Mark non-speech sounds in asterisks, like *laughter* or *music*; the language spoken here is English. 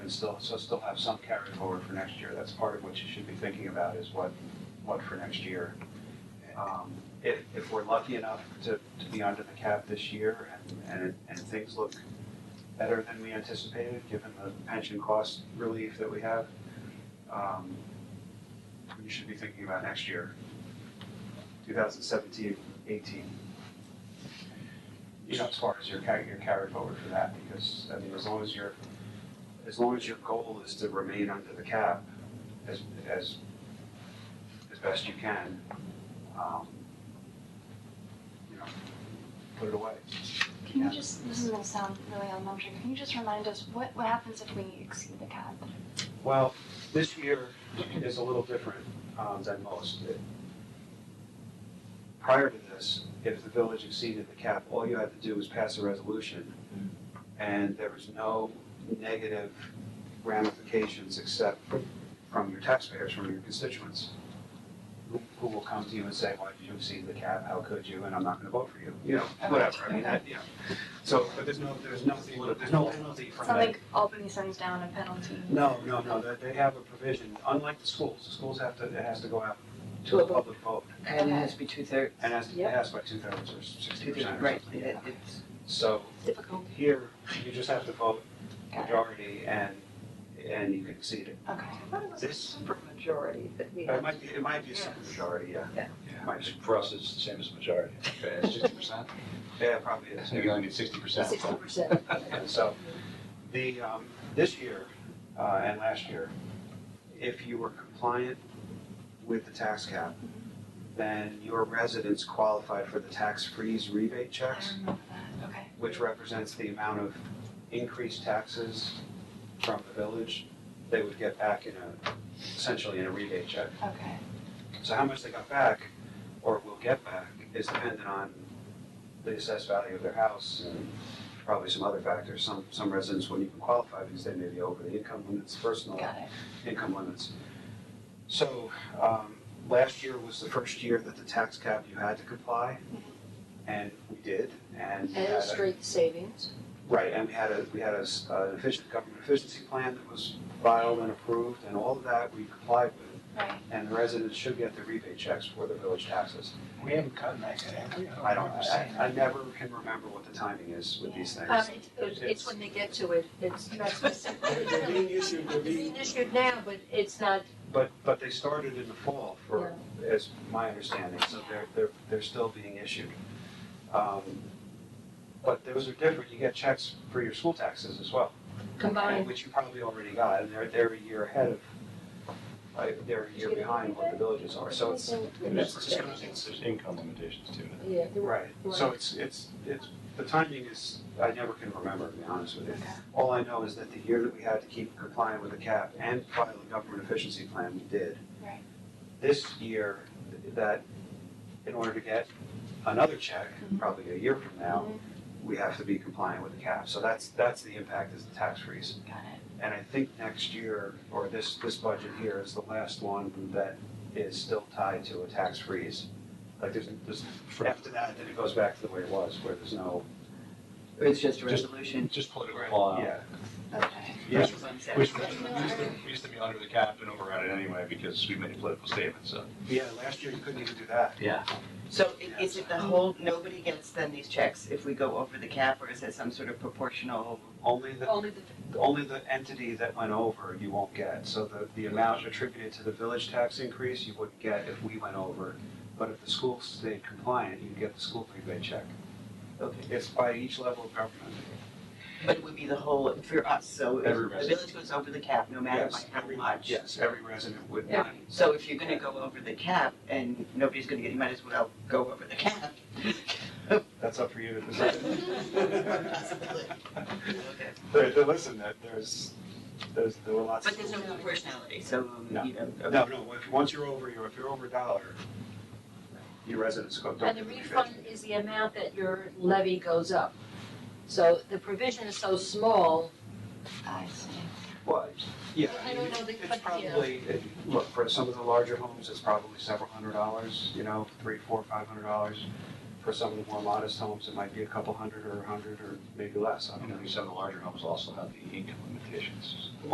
still, so still have some carryover for next year. That's part of what you should be thinking about is what, what for next year. Um, If, if we're lucky enough to, to be under the cap this year and, and, and things look better than we anticipated, given the pension cost relief that we have, um, we should be thinking about next year, 2017, 18. You know, as far as your carry, your carry forward for that, because, I mean, as long as your, as long as your goal is to remain under the cap as, as, as best you can, um, you know, put it away. Can Yeah. you just, this is gonna sound really elementary, can you just remind us what, what happens if we exceed the cap? Well, this year is a little different um, than most. It- Prior to this, if the village exceeded the cap, all you had to do was pass a resolution, and there was no negative ramifications except from your taxpayers, from your constituents, who- who will come to you and say, why did you exceed the cap, how could you, and I'm not gonna vote for you, you know, whatever, I mean, that, you know. So, but there's no, there's nothing, there's no penalty It's from not that. like Albany sends down a penalty. No, no, no, they, they have a provision, unlike the schools, the schools have to, it has to go out to To a a public vote. And it has to be two-thirds. And has to Yep. pass by two thirds or sixty Two-thirds, percent or right, something. it, it's, So Difficult. here, you just have to vote Got it. majority and, and you can exceed it. Okay. What was This- Uh, super majority that we But it had? might be, it might be a super Yes. majority, yeah. Yeah. It might be. For us, it's the same as majority. It's sixty percent. Yeah, it probably is. So you only need sixty percent. Sixty percent. And so, the, um, this year, uh, and last year, if you were compliant with the tax cap, then your residents qualified for the tax freeze rebate I checks, remember that, okay. which represents the amount of increased taxes from the village they would get back in a, essentially in a rebate check. Okay, So how much they got back, or will get back, is dependent on the assessed value of their house and probably some other factors. Some, some residents wouldn't even qualify because they may be over the income limits, personal got it. income limits. So, um, last year was the first year that the tax cap, you had to comply, Mm-hmm. and we did, and. we And had a- illustrate savings. Right, and we had a, we had a, s- an efficient government efficiency plan that was filed and approved, and all of that we complied with Right, and the residents should get the rebate checks for the village taxes. We haven't cut that yet, have we? I don't, I, I never can remember what the timing is with these things. Um, it- it's, it's when they get to it, *laughs* it's not specific. They're they're being issued, they're It's being being issued now, but it's not, But, but they started in the fall for, as my understanding, so they're, they're, they're still being issued. Um, But those are different, you get checks for your school taxes as well. Combined. Which you probably already got, and they're, they're a year ahead of, like, they're a year behind what the villages are, so it's, There's, there's income limitations too. yeah, there were- Right, so it's, it's, it's, the timing is, I never can remember, to be honest with you. All I know is that the year that we had to keep compliant with the cap and file a government efficiency plan, we did. Right. This year, that, in order to get another check, Mhm. probably a year from now, we have to be compliant with the cap, so that's, that's the impact is the tax freeze. got it. And I think next year, or this, this budget here is the last one that is still tied to a tax freeze. Like, there's, there's after that, then it goes back to the way it was, where there's no. it's just a Just- resolution. Just political law. Yeah, Okay, yeah, That's what I'm saying. Which, we used to- we used to be under the cap and override it anyway because we made a political statement, so. yeah, last year you couldn't even do that. Yeah. So i- is it the whole, nobody gets then these checks if we go over the cap, or is it some sort of proportional? Only the, only the, only the entity that went over you won't get. So the, the amount attributed to the village tax increase, you wouldn't get if we went over. But if the school stayed compliant, you'd get the school rebate check. Okay. It's by each level of government. But it would be the whole, for us, so if Every the resident. village goes over the cap, no matter Yes, by how every- much. Yes, every resident would Yeah. not So if you're gonna go over the cap and nobody's gonna get, you might as well go over the *laughs* cap. That's up for you to *laughs* decide. *laughs* Possibly. Okay. But, but listen, that there's, there's, there were lots. But there's no proportionality, so, No. you know. No, no, if, once you're over, you're, if you're over a dollar, your residents go, don't. and the get rebate. refund is the amount that your levy goes up. So the provision is so small, I see. Well, yeah. I don't know the- It's but, you probably, it- look, for some of the larger homes, it's probably several hundred dollars, you know, three, four, five hundred dollars. For some of the more modest homes, it might be a couple hundred or a hundred or maybe less, I don't know. And then some of the larger homes also have the income limitations.